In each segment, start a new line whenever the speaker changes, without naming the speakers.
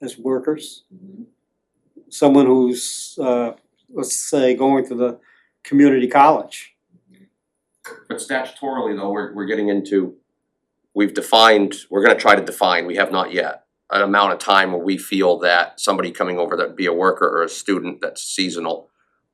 as workers. Someone who's, uh, let's say, going to the community college.
But statutorily though, we're we're getting into, we've defined, we're gonna try to define, we have not yet, an amount of time where we feel that somebody coming over that be a worker or a student that's seasonal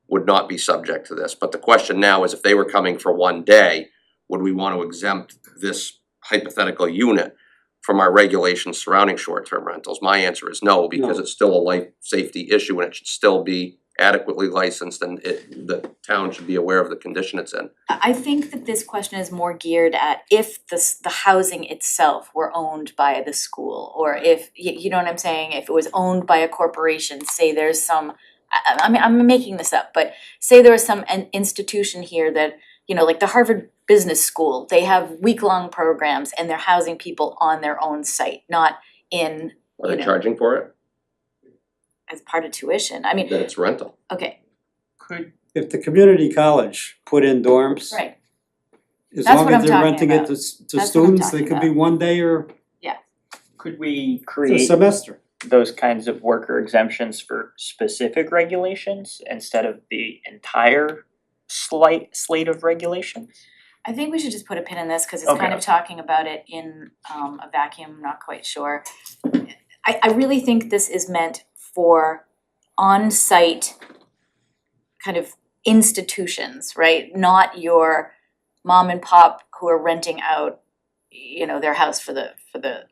would not be subject to this, but the question now is if they were coming for one day, would we want to exempt this hypothetical unit from our regulations surrounding short-term rentals? My answer is no, because
No.
it's still a life safety issue and it should still be adequately licensed and it, the town should be aware of the condition it's in.
I I think that this question is more geared at if the s- the housing itself were owned by the school or if, you you know what I'm saying, if it was owned by a corporation, say there's some I I I mean, I'm making this up, but say there was some an institution here that, you know, like the Harvard Business School, they have week-long programs and they're housing people on their own site, not in
Are
you
they
know.
charging for it?
as part of tuition. I mean,
Then it's rental.
okay,
Could,
If the community college put in dorms,
right,
as
That's
long
what
as
I'm
they're
talking
renting it
about.
to s- to
That's what I'm
students, they
talking
could be
about.
one day or
could we
a
create
semester.
those kinds of worker exemptions for specific regulations instead of the entire slight slate of regulations?
I think we should just put a pin in this, cause it's kind
Okay.
of talking about it in um a vacuum, not quite sure. I I really think this is meant for on-site kind of institutions, right? Not your mom and pop who are renting out, you know, their house for the for the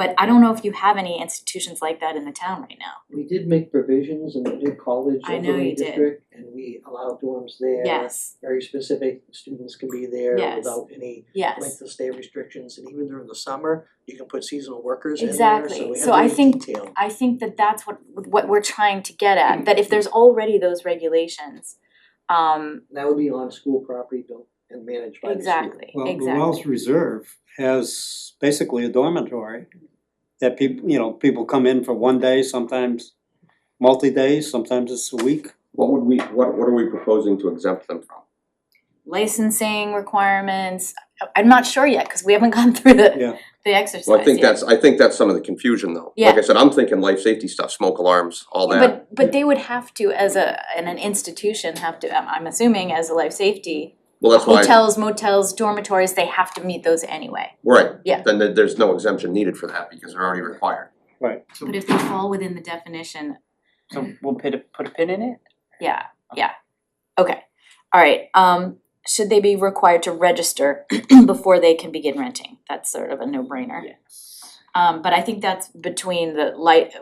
but I don't know if you have any institutions like that in the town right now.
We did make provisions and we did college
I know
overlay
you did.
district and we allowed dorms there.
Yes,
Very specific, students can be there
Yes.
without any
yes.
length of stay restrictions and even during the summer, you can put seasonal workers in there,
Exactly.
so we have
So I
very
think-
detailed.
I think that that's what what we're trying to get at, that if there's already those regulations, um
That would be on school property built and managed by the school.
exactly,
Well, the Wells
exactly.
Reserve has basically a dormitory that people, you know, people come in for one day, sometimes multi-days, sometimes it's a week.
What would we, what what are we proposing to exempt them from?
Licensing requirements, I- I'm not sure yet, cause we haven't gone through
Yeah.
the the exercise
Well, I think
yet.
that's, I think that's some of the confusion though. Like I said, I'm thinking life safety stuff, smoke alarms, all that.
But but they would have to, as a, in an institution, have to, I'm I'm assuming as a life safety,
Well, that's why,
hotels, motels, dormitories, they have to meet those anyway.
right.
Yeah.
Then there- there's no exemption needed for that because they're already required.
But if they fall within the definition,
So we'll put a put a pin in it?
Yeah, yeah. Okay, alright, um, should they be required to register before they can begin renting? That's sort of a no-brainer.
Yes.
Um, but I think that's between the light,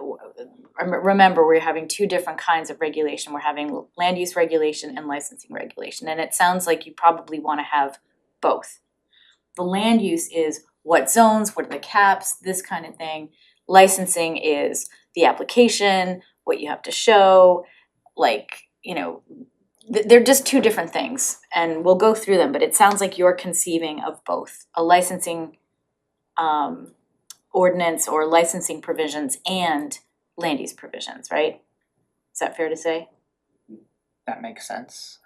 remember, we're having two different kinds of regulation. We're having land use regulation and licensing regulation, and it sounds like you probably wanna have both. The land use is what zones, what are the caps, this kind of thing. Licensing is the application, what you have to show, like, you know, th- they're just two different things and we'll go through them, but it sounds like you're conceiving of both, a licensing um ordinance or licensing provisions and land use provisions, right? Is that fair to say?
That makes sense.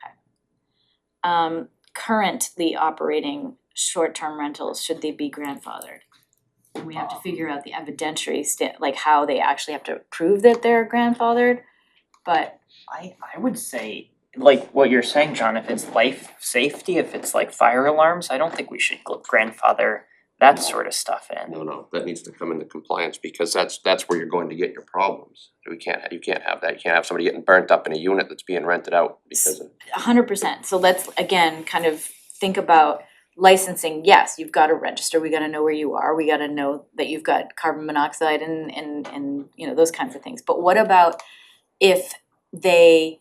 Um currently operating short-term rentals, should they be grandfathered? And we have to figure out the evidentiary sta- like how they actually have to prove that they're grandfathered, but
I I would say like what you're saying, John, if it's life safety, if it's like fire alarms, I don't think we should gl- grandfather that sort of stuff in.
No, no, that needs to come into compliance because that's, that's where you're going to get your problems. We can't, you can't have that. You can't have somebody getting burnt up in a unit that's being rented out because of.
A hundred percent, so let's again kind of think about licensing, yes, you've gotta register, we gotta know where you are, we gotta know that you've got carbon monoxide and and and you know, those kinds of things, but what about if they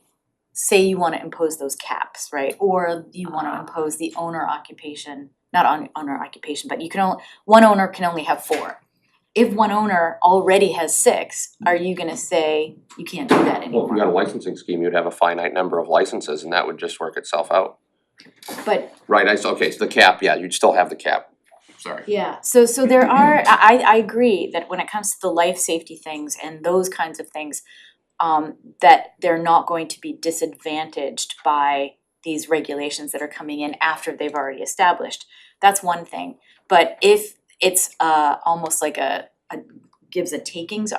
say you wanna impose those caps, right, or you wanna impose the owner occupation, not on owner occupation, but you can only, one owner can only have four. If one owner already has six, are you gonna say you can't do that anymore?
Well, if you had a licensing scheme, you'd have a finite number of licenses and that would just work itself out.
But
Right, I, s- okay, so the cap, yeah, you'd still have the cap. Sorry.
Yeah, so so there are, I I agree that when it comes to the life safety things and those kinds of things, um that they're not going to be disadvantaged by these regulations that are coming in after they've already established. That's one thing, but if it's uh almost like a a gives a takings